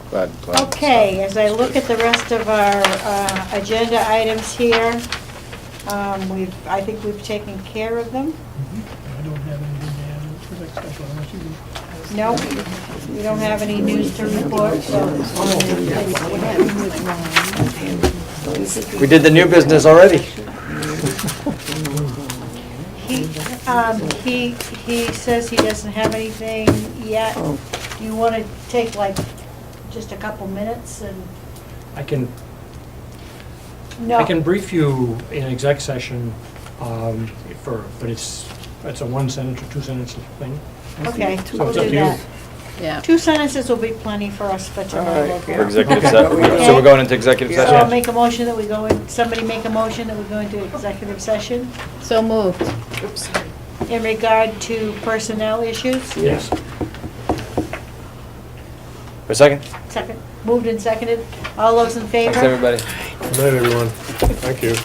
Glad, glad. Okay, as I look at the rest of our uh, agenda items here, um, we've, I think we've taken care of them. I don't have anything to add for the next special unless you do. No, we don't have any news to report, so We did the new business already. he, um, he, he says he doesn't have anything yet. Do you want to take like just a couple minutes and? I can, No. I can brief you in exec session um, for, but it's, it's a one sentence or two sentence thing. Okay, So we'll it's up do to you. that. Yeah. Two sentences will be plenty for us for tonight. I right, guess. yeah. For executive Okay. session. Okay. So we're going into executive So I'll session? make a motion that we go in, somebody make a motion that we go into executive session So moved. in regard to personnel issues. Yes. For a second? Second, moved and seconded. All those in favor? Thanks, everybody. Good night, everyone. Thank you.